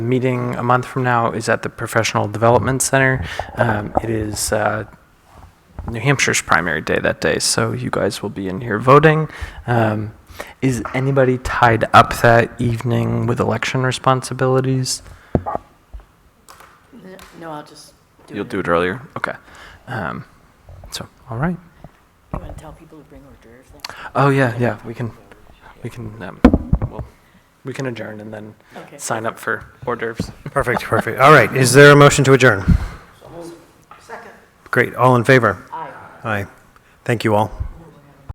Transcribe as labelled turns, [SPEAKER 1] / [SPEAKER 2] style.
[SPEAKER 1] meeting a month from now is at the Professional Development Center. Um, It is uh, New Hampshire's primary day that day, so you guys will be in here voting. Um, Is anybody tied up that evening with election responsibilities?
[SPEAKER 2] No, I'll just do it.
[SPEAKER 1] You'll do it earlier? Okay. Um, So, all right.
[SPEAKER 2] You want to tell people to bring hors d'oeuvres then?
[SPEAKER 1] Oh, yeah, yeah, we can, we can, um, well, we can adjourn and then
[SPEAKER 2] Okay.
[SPEAKER 1] sign up for hors d'oeuvres.
[SPEAKER 3] Perfect, perfect. All right, is there a motion to adjourn?
[SPEAKER 2] Second.
[SPEAKER 3] Great, all in favor?
[SPEAKER 2] Aye.
[SPEAKER 3] Aye. Thank you all.